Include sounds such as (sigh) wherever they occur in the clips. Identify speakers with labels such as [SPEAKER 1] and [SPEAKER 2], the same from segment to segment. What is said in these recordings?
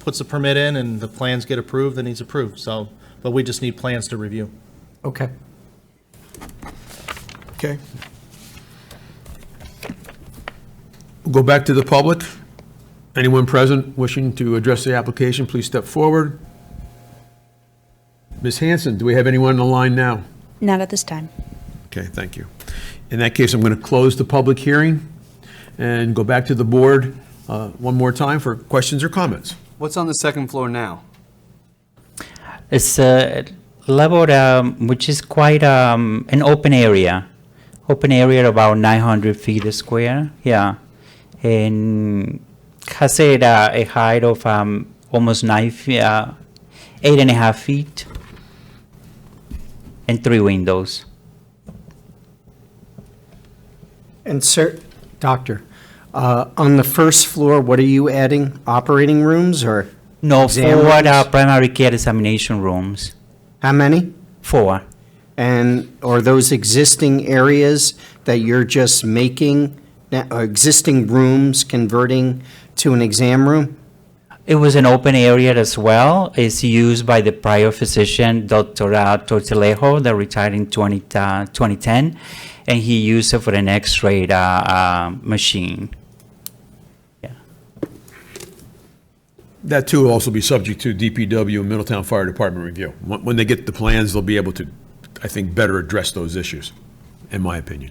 [SPEAKER 1] puts the permit in and the plans get approved, then he's approved, so, but we just need plans to review.
[SPEAKER 2] Okay.
[SPEAKER 3] Okay. We'll Go back to the public. Anyone present wishing to address the application, please step forward. Ms. Hanson, do we have anyone on the line now?
[SPEAKER 4] Not at this time.
[SPEAKER 3] Okay, thank you. In that case, I'm going to close the public hearing and go back to the board uh, one more time for questions or comments.
[SPEAKER 5] What's on the second floor now?
[SPEAKER 6] It's a level um, which is quite um, an open area, open area about 900 feet square. Yeah, and has a, uh, a height of um, almost nine feet, uh, eight and a half feet, and three windows.
[SPEAKER 2] And sir, doctor, uh, on the first floor, what are you adding? Operating rooms or
[SPEAKER 6] No,
[SPEAKER 2] Exam
[SPEAKER 6] four uh,
[SPEAKER 2] rooms?
[SPEAKER 6] primary care examination rooms.
[SPEAKER 2] how many?
[SPEAKER 6] Four.
[SPEAKER 2] And are those existing areas that you're just making, na- uh, existing rooms converting to an exam room?
[SPEAKER 6] It was an open area as well. It's used by the prior physician, Dr. uh, Tortillejo, that retired in 20, uh, 2010, and he used it for an X-ray uh, uh, machine.
[SPEAKER 3] That too will also be subject to DPW and Middletown Fire Department review. When when they get the plans, they'll be able to, I think, better address those issues, in my opinion.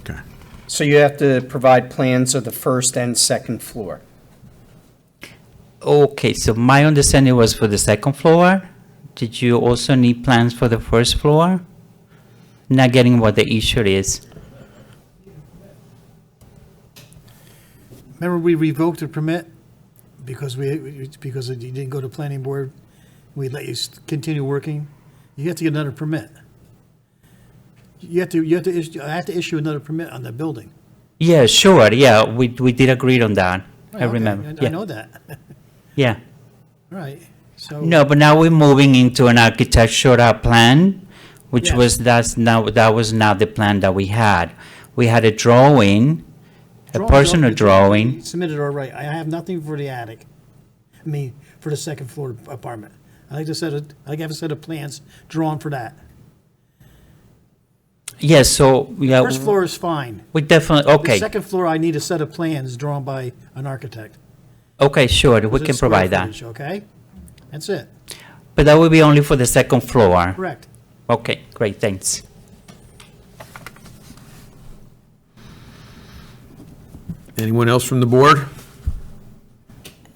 [SPEAKER 3] Okay.
[SPEAKER 2] So you have to provide plans of the first and second floor.
[SPEAKER 6] Okay, so my understanding was for the second floor. Did you also need plans for the first floor? Not getting what the issue is.
[SPEAKER 7] Remember, we revoked the permit because we, because you didn't go to planning board. We let you s- continue working. You have to get another permit. You have to, you have to, issue- I have to issue another permit on the building.
[SPEAKER 6] Yeah, sure, yeah, we, we did agree on that. I
[SPEAKER 7] Okay,
[SPEAKER 6] remember,
[SPEAKER 7] I
[SPEAKER 6] yeah,
[SPEAKER 7] know that. All
[SPEAKER 6] yeah.
[SPEAKER 7] Right, so.
[SPEAKER 6] No, but now we're moving into an architectural plan, which
[SPEAKER 7] Yes.
[SPEAKER 6] was, that's now, that was not the plan that we had. We had a drawing, a
[SPEAKER 7] drawings
[SPEAKER 6] personal
[SPEAKER 7] are-
[SPEAKER 6] drawing.
[SPEAKER 7] Submitted all right. I have nothing for the attic. I mean, for the second floor apartment. I like to set, a- I like to have a set of plans drawn for that.
[SPEAKER 6] Yes, so, yeah,
[SPEAKER 7] First floor is fine.
[SPEAKER 6] we definitely,
[SPEAKER 7] The
[SPEAKER 6] Oh. okay,
[SPEAKER 7] second floor, I need a set of plans drawn by an architect.
[SPEAKER 6] okay, sure, we
[SPEAKER 7] Is it
[SPEAKER 6] can
[SPEAKER 7] square
[SPEAKER 6] provide that.
[SPEAKER 7] footage, Okay? That's it.
[SPEAKER 6] But that will be only for the second floor.
[SPEAKER 7] Correct.
[SPEAKER 6] Okay, great, thanks.
[SPEAKER 3] Anyone else from the board?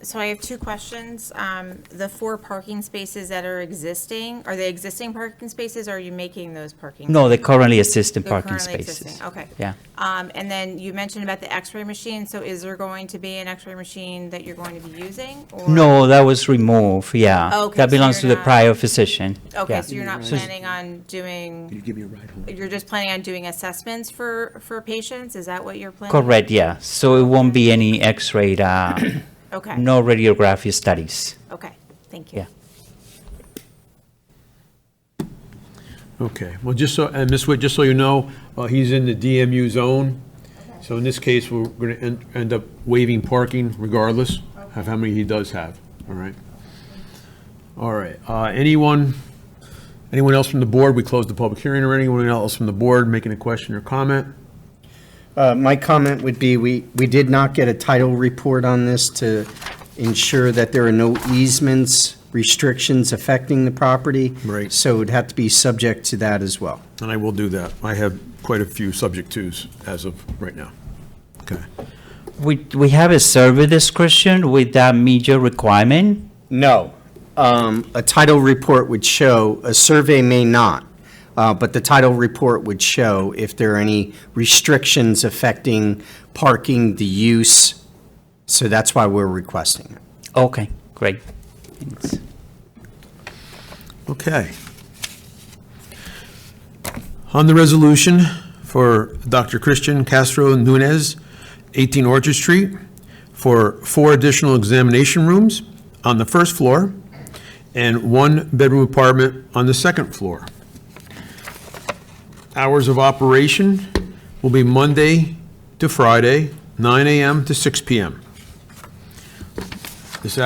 [SPEAKER 8] So I have two questions. Um, The four parking spaces that are existing, are they existing parking spaces, or are you making those parking?
[SPEAKER 6] No, the currently existing
[SPEAKER 8] They're
[SPEAKER 6] parking
[SPEAKER 8] currently
[SPEAKER 6] spaces.
[SPEAKER 8] existing, Okay.
[SPEAKER 6] Yeah.
[SPEAKER 8] Um, And then you mentioned about the x-ray machine, so is there going to be an x-ray machine that you're going to be using? or-
[SPEAKER 6] No, that was removed, yeah.
[SPEAKER 8] Okay,
[SPEAKER 6] That
[SPEAKER 8] so
[SPEAKER 6] belongs
[SPEAKER 8] you're
[SPEAKER 6] to the
[SPEAKER 8] not-
[SPEAKER 6] prior physician.
[SPEAKER 8] Okay,
[SPEAKER 6] yeah.
[SPEAKER 8] so you're not planning on doing? you give me a ride home? You're just planning on doing assessments for, for patients? Is that what you're planning?
[SPEAKER 6] Correct, yeah, so it won't be any X-ray, uh,
[SPEAKER 8] (coughs) Okay.
[SPEAKER 6] no radiography studies.
[SPEAKER 8] Okay, thank you.
[SPEAKER 6] Yeah.
[SPEAKER 3] Okay, well, just so, and Ms. Witt, just so you know, uh, he's in the DMU zone, so in this case, we're going to end up waiving parking regardless of how many he does have, all right? All right, uh, anyone, anyone else from the board? We closed the public hearing already. Anyone else from the board making a question or comment?
[SPEAKER 2] Uh, My comment would be, we, we did not get a title report on this to ensure that there are no easements, restrictions affecting the property.
[SPEAKER 3] Right.
[SPEAKER 2] So it would have to be subject to that as well.
[SPEAKER 3] And I will do that. I have quite a few subject twos as of right now. Okay.
[SPEAKER 6] We, we have a survey description with that major requirement.
[SPEAKER 2] No. Um, A title report would show, a survey may not, uh, but the title report would show if there are any restrictions affecting parking, the use. So that's why we're requesting it.
[SPEAKER 6] Okay, great. Thanks.
[SPEAKER 3] Okay. On the resolution for Dr. Christian Castro Nunez, 18 Orchard Street, for four additional examination rooms on the first floor and one bedroom apartment on the second floor. Hours of operation will be Monday to Friday, 9 AM to 6 PM.